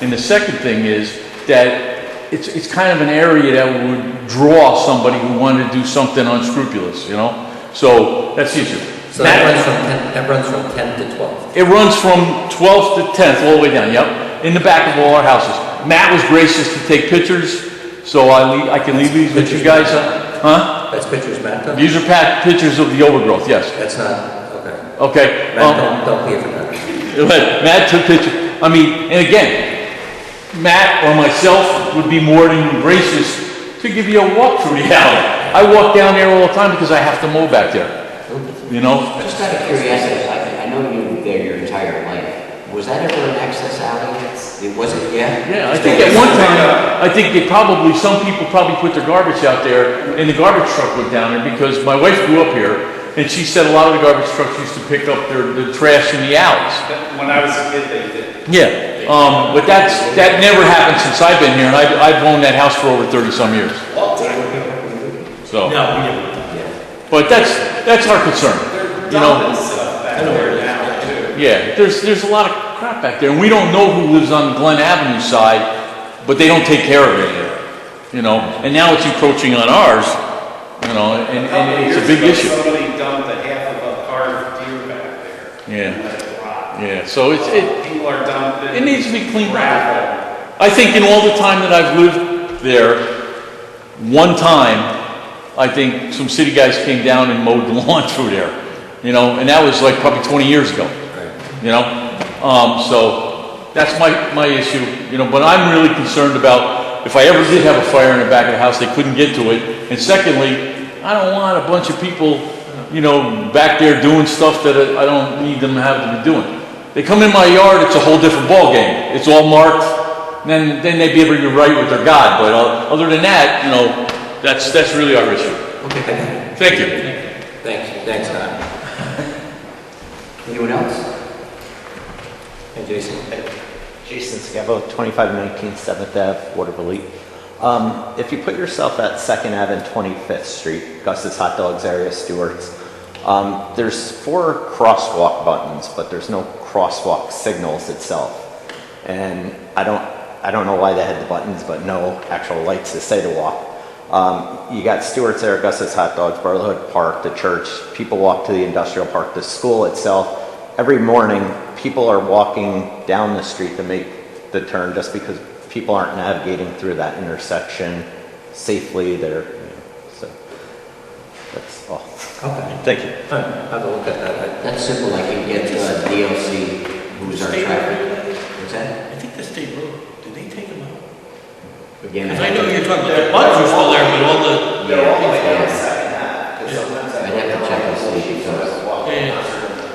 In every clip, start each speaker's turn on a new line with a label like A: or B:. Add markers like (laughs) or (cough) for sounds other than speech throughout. A: And the second thing is that it's, it's kind of an area that would draw somebody who wanted to do something unscrupulous, you know? So that's the issue.
B: So that
A: That-
B: runs from 10, that runs from 10 to 12.
A: It runs from 12th to 10th, all the way down, yep, in the back of all our houses. Matt was gracious to take pictures, so I lea- I can leave these with you guys. Huh?
B: That's pictures, Matt, though?
A: These are packed pictures of the overgrowth, yes.
B: That's not, okay.
A: Okay. um,
B: Matt, don't, don't be for that.
A: But Matt took pictures. I mean, and again, Matt or myself would be more than gracious to give you a walk through the alley. I walk down there all the time because I have to mow back there, you know?
C: Just out of curiosity, I, I know you were there your entire life. Was that ever an access alley? It wasn't, yeah?
A: Yeah, I think at one time, I think they probably, some people probably put their garbage out there and the garbage truck went down there because my wife grew up here and she said a lot of the garbage trucks used to pick up their, the trash in the alleys.
D: When I was a kid, they did.
A: Yeah, um, but that's, that never happened since I've been here, and I've, I've owned that house for over thirty-some years. So,
D: No, we didn't.
A: but that's, that's our concern, you know?
D: stuff uh, back there now, too.
A: Yeah, there's, there's a lot of crap back there, and we don't know who lives on Glen Avenue side, but they don't take care of it here, you know? And now it's encroaching on ours, you know, and,
D: Couple
A: and it's a
D: years
A: big
D: ago,
A: issue.
D: Somebody dumped a half of a carved deer back there.
A: Yeah.
D: Let it rot.
A: Yeah, so it's, it,
D: People are dumping.
A: It needs to be cleaned up.
E: (laughs)
D: gravel.
A: I think in all the time that I've lived there, one time, I think some city guys came down and mowed the (laughs) lawn through there, you know, and that was like probably 20 years ago, you know? Um, so that's my, my issue, you know, but I'm really concerned about if I ever did have a fire in the back of the house, they couldn't get to it. And secondly, I don't want a bunch of people, you know, back there doing stuff that I I don't need them to have to be doing. They come in my yard, it's a whole different ballgame. It's all marked, and then, then they'd be able to get right with their God, but uh, other than that, you know, that's, that's really our issue.
B: Okay, thank
A: Thank you.
B: you. Thanks, thanks, Matt.
C: Anyone else?
B: And Jason.
F: Jason Scavo, 2519 7th Ave, Waterville. Um, If you put yourself at 2nd Ave and 25th Street, Gus's Hot Dogs area, Stewart's, um, there's four crosswalk buttons, but there's no crosswalk signals itself. And I don't, I don't know why they had the buttons, but no actual lights to say to walk. Um, You got Stewart's there, Gus's Hot Dogs, Brotherhood Park, the church, people walk to the industrial park, the school itself, every morning, people are walking down the street to make the turn just because people aren't navigating through that intersection safely. They're, you know, so that's all.
B: Okay.
F: Thank you.
B: All right, Have a look at that.
C: That's simple, I can get uh, DLC, who's our traffic. What's that?
G: I think the state road, did they take them out?
C: Again,
G: Because I know
C: have to-
G: you're talking about the buttons are still there, but all the,
C: Yeah, yeah.
F: Second half, because sometimes
C: I'd have to check and see because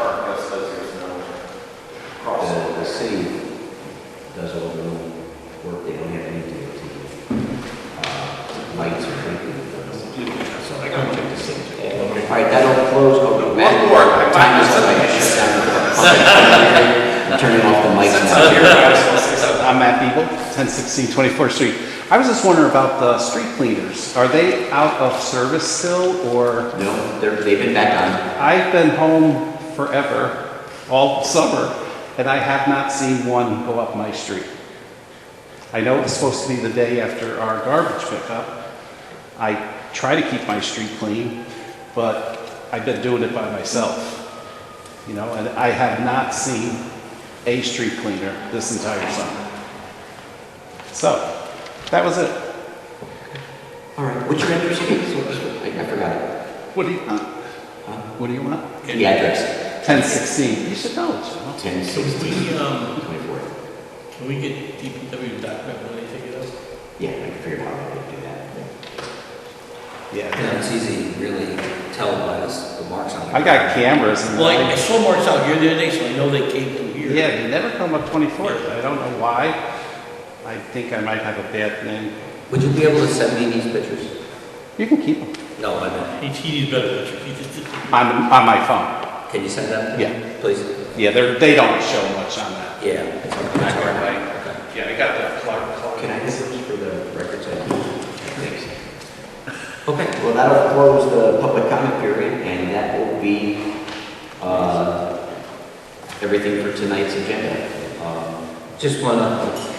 C: the, the city does all the little work, they don't have any DLC. uh, Lights or anything. So I gotta check the city. All right, that'll close, go to Matt.
D: One more. I
C: Time is
D: might-
C: up, I shut down. the- Turning off the mics now.
E: I'm Matt Beagle, 1016 24th Street. I was just wondering about the street cleaners. Are they out of service still, or?
C: No, they're, they've been back on.
E: I've been home forever, all summer, and I have not seen one go up my street. I know it's supposed to be the day after our garbage pickup. I try to keep my street clean, but I've been doing it by myself. You know, and I have not seen a street cleaner this entire summer. So, that was it.
C: All right, what's your address again? So- so- I I forgot it.
E: What do you want? What do you want?
C: The address,
E: 1016. You should know it, you know.
C: ten
G: can
C: sixteen
G: we, um,
C: twenty-four.
G: can we get DPW document when they take it out?
C: Yeah, I can figure out how to do that.
E: Yeah.
B: Yeah, it's easy, to really tell by this- the marks on it.
E: I got cameras and
G: Well, I- I
E: lights.
G: saw Mark's out here the other day, so I know they came through here.
E: Yeah, they never come up 24th. I don't know why. I think I might have a bad name.
B: Would you be able to send me these pictures?
E: You can keep them
B: No, I meant,
G: He, he needs better pictures. He just did-
E: on, on my phone.
B: can you send them?
E: Yeah.
B: Please?
E: Yeah, they're, they don't show much on that.
B: Yeah. it's on- it's
D: Back
B: on-
D: there, right? Yeah, I got the Clark, Clark.
C: Can I get those for the records? Thanks.
B: Okay.
C: Well, that'll close the public comment period, and that will be, uh, everything for tonight's agenda. Um,
B: Just one, uh,